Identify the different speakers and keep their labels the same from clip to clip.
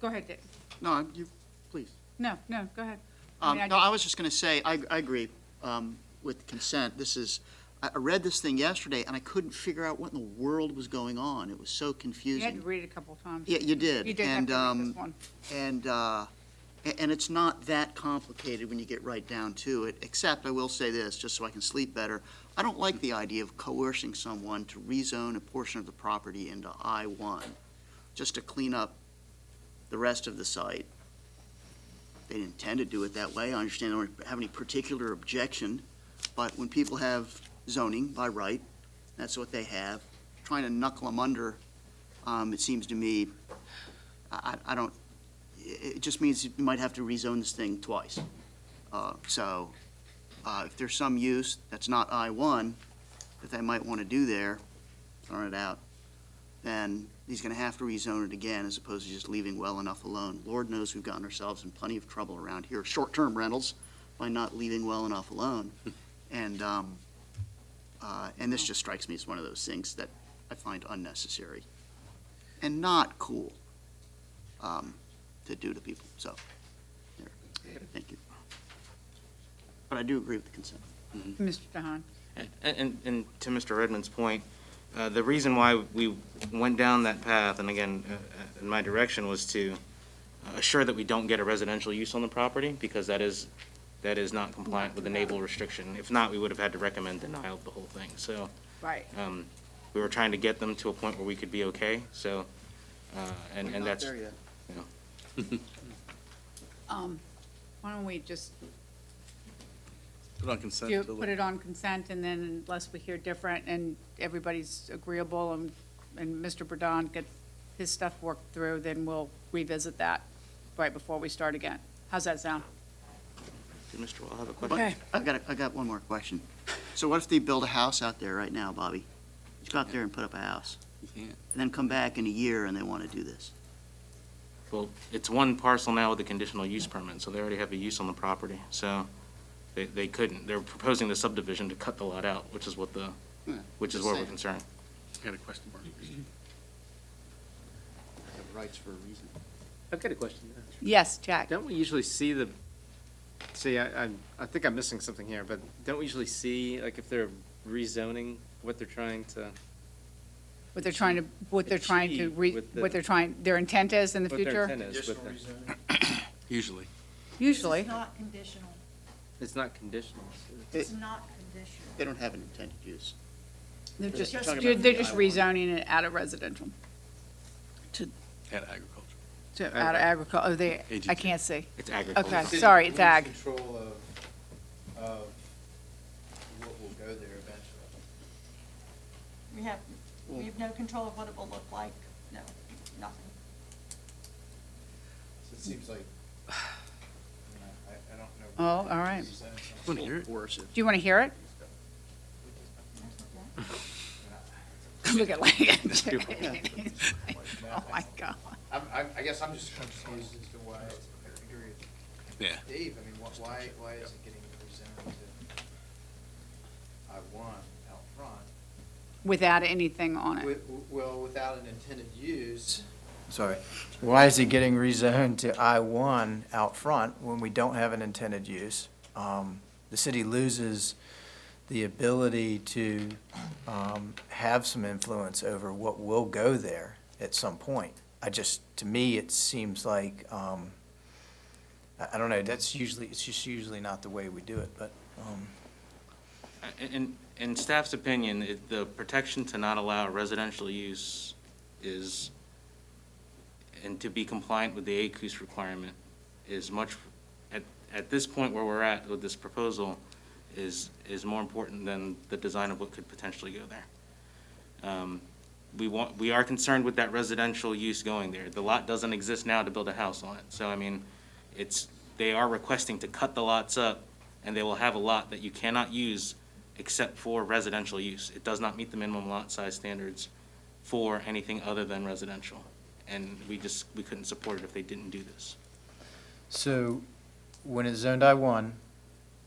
Speaker 1: Go ahead, Dick.
Speaker 2: No, I'm- you, please.
Speaker 1: No, no, go ahead. I
Speaker 2: Um,
Speaker 1: mean, I
Speaker 2: No, I was just going to say, I, I agree um, with consent. This is, I I read this thing yesterday, and I couldn't figure out what in the world was going on. It was so
Speaker 1: You had to
Speaker 2: confusing.
Speaker 1: read it a couple times.
Speaker 2: Yeah, you did.
Speaker 1: You did have
Speaker 2: And,
Speaker 1: to read
Speaker 2: um,
Speaker 1: this one.
Speaker 2: And, uh, a- and it's not that complicated when you get right down to it, except I will say this, just so I can sleep better. I don't like the idea of coercing someone to rezone a portion of the property into I-1, just to clean up the rest of the site. They didn't intend to do it that way. I understand they don't have any particular objection, but when people have zoning by right, that's what they have. Trying to knuckle them under, um, it seems to me, I, I I don't, it it just means you might have to rezone this thing twice. Uh, So uh, if there's some use that's not I-1 that they might want to do there, throwing it out, then he's going to have to rezone it again as opposed to just leaving well enough alone. Lord knows we've gotten ourselves in plenty of trouble around here, short-term rentals, by not leaving well enough alone. And, um, uh, and this just strikes me as one of those things that I find unnecessary and not cool um, to do to people, so, there, thank you. But I do agree with the consent.
Speaker 1: Mr. Dahan.
Speaker 3: And- And, and to Mr. Redmond's point, uh, the reason why we went down that path, and again, uh, uh, in my direction, was to assure that we don't get a residential use on the property, because that is, that is not compliant with the naval restriction. If not, we would have had to recommend denial of the whole thing. So
Speaker 1: Right.
Speaker 4: Oh.
Speaker 3: um, we were trying to get them to a point where we could be okay, so, uh, and, and that's.
Speaker 1: Um, Why don't we just
Speaker 5: Put on consent
Speaker 1: do,
Speaker 5: till-
Speaker 1: put it on consent, and then unless we hear different, and everybody's agreeable, and, and Mr. Burdon gets his stuff worked through, then we'll revisit that right before we start again. How's that sound?
Speaker 3: Did Mr. Wall have a question?
Speaker 1: Okay.
Speaker 2: I've got, a- I got one more question. So what if they build a house out there right now, Bobby? Just go out there and put up a house,
Speaker 5: You can't.
Speaker 2: and then come back in a year and they want to do this.
Speaker 3: Well, it's one parcel now with a conditional use permit, so they already have a use on the property, so they, they couldn't. They're proposing the subdivision to cut the lot out, which is what the,
Speaker 2: Yeah,
Speaker 3: which is
Speaker 2: Hmm. just
Speaker 3: where we're
Speaker 2: saying.
Speaker 3: concerned.
Speaker 5: Got a question mark.
Speaker 2: Rights for a reason.
Speaker 4: I've got a question.
Speaker 1: Yes, Jack?
Speaker 4: Don't we usually see the, see, I, I'm- I think I'm missing something here, but don't we usually see, like, if they're rezoning, what they're trying to,
Speaker 1: What they're trying to, what they're trying to,
Speaker 4: Achieve
Speaker 1: re-
Speaker 4: with the-
Speaker 1: what they're trying, their intent is in the
Speaker 4: what their
Speaker 1: future?
Speaker 4: intent is with it?
Speaker 5: Usually.
Speaker 1: Usually.
Speaker 6: It's not conditional.
Speaker 4: It's not conditional.
Speaker 6: It's not conditional.
Speaker 2: They don't have an intended use.
Speaker 1: They're
Speaker 2: They're
Speaker 1: just,
Speaker 2: just talking
Speaker 1: they're
Speaker 2: about
Speaker 1: they're
Speaker 2: the
Speaker 1: just
Speaker 2: I one.
Speaker 1: rezoning it out of residential,
Speaker 5: And agriculture.
Speaker 1: to, out of agriculture, oh, they, I
Speaker 5: AGT.
Speaker 1: can't see.
Speaker 3: It's agriculture.
Speaker 1: Okay, sorry, it's ag.
Speaker 7: Control of, of what will go there eventually.
Speaker 6: We have, we have no control of what it will look like, no, nothing.
Speaker 7: So it seems like, you know, I, I don't know.
Speaker 1: Oh, all right.
Speaker 7: Is that something
Speaker 5: Want to hear it?
Speaker 2: Coercive.
Speaker 1: Do you want to hear it? Look at Lincoln. Oh, my God.
Speaker 7: I'm, I'm, I guess I'm just confused as to why, I agree with
Speaker 5: Yeah.
Speaker 7: Dave, I mean, wh- why, why is it getting rezoned to I one out front?
Speaker 1: Without anything on it.
Speaker 7: Wi- w- Well, without an intended use.
Speaker 8: Sorry. Why is it getting rezoned to I-1 out front when we don't have an intended use? Um, The city loses the ability to um, have some influence over what will go there at some point. I just, to me, it seems like, um, I I don't know, that's usually, it's just usually not the way we do it, but, um,
Speaker 3: In- In, in staff's opinion, it- the protection to not allow residential use is, and to be compliant with the ACUS requirement is much, at, at this point where we're at with this proposal, is, is more important than the design of what could potentially go there. Um, We want, we are concerned with that residential use going there. The lot doesn't exist now to build a house on it. So, I mean, it's, they are requesting to cut the lots up, and they will have a lot that you cannot use except for residential use. It does not meet the minimum lot size standards for anything other than residential. And we just, we couldn't support it if they didn't do this.
Speaker 8: So when it's zoned I-1,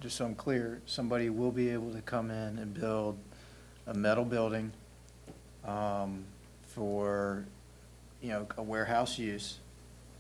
Speaker 8: just so I'm clear, somebody will be able to come in and build a metal building um, for, you know, a warehouse use